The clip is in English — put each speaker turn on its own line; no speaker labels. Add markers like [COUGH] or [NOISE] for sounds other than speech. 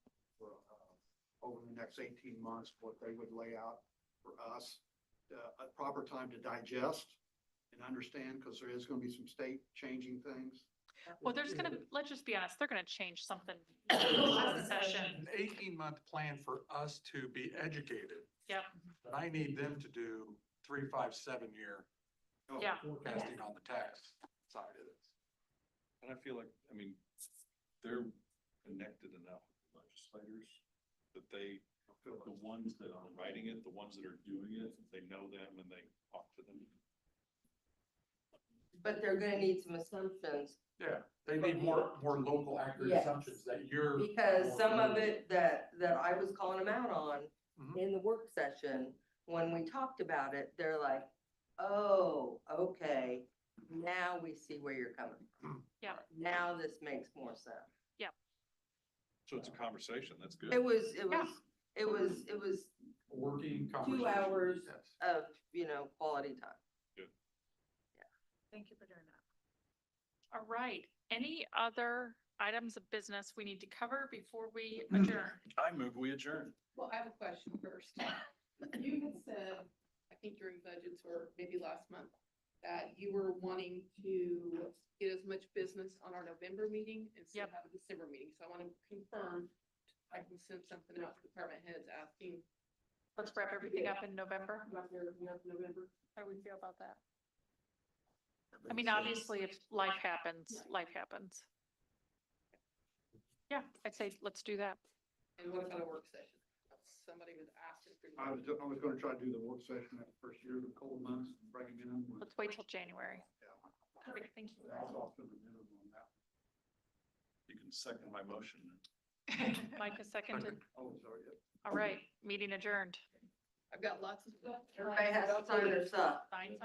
uh, over the next eighteen months, what they would lay out for us, uh, a proper time to digest and understand, because there is gonna be some state changing things.
Well, they're just gonna, let's just be honest, they're gonna change [COUGHS] something. Session,
Last session.
An eighteen month plan for us to be educated.
Yep.
But I need them to do three, five, seven year
Oh,
yeah.
forecasting on the tax side of this.
And I feel like, I mean, they're connected enough with legislators that they,
I feel like-
the ones that are writing it, the ones that are doing it, they know them and they talk to them.
But they're gonna need some assumptions,
Yeah, they need more, more local accurate
Yes.
assumptions that you're.
because some of it that, that I was calling them out on
Mhm.
in the work session, when we talked about it, they're like, oh, okay, now we see where you're coming from.
Yeah.
Now this makes more sense.
So it's a conversation, that's good.
It was, it
Yeah.
was, it was, it was
Working conversation.
hours.
Yes.
of, you know, quality time.
Thank you for doing that. All right, any other items of business we need to cover before we adjourn?
I move, we adjourn.
Well, I have a question first. You had said, I think during budgets or maybe last month, that you were wanting to get as much business on our November meeting and still
Yep.
have a December meeting. So I want to confirm, I can send something out to department heads asking
Let's wrap everything up in November.
about their, you know, November.
How do we feel about that? I mean, obviously, if life happens, life happens. Yeah, I'd say let's do that.
And what about a work session? Somebody was asking for.
I was, I was gonna try to do the work session at the first year of the cold months, and bring it in. with-
Let's wait till January.
Yeah.
Perfect, thank you.
That's off to the minimum on that.
You can second my motion.
Mike is seconded.
Oh, sorry. yeah.
All right, meeting adjourned.
I've got lots of stuff.
Everybody has to sign their stuff.
Sign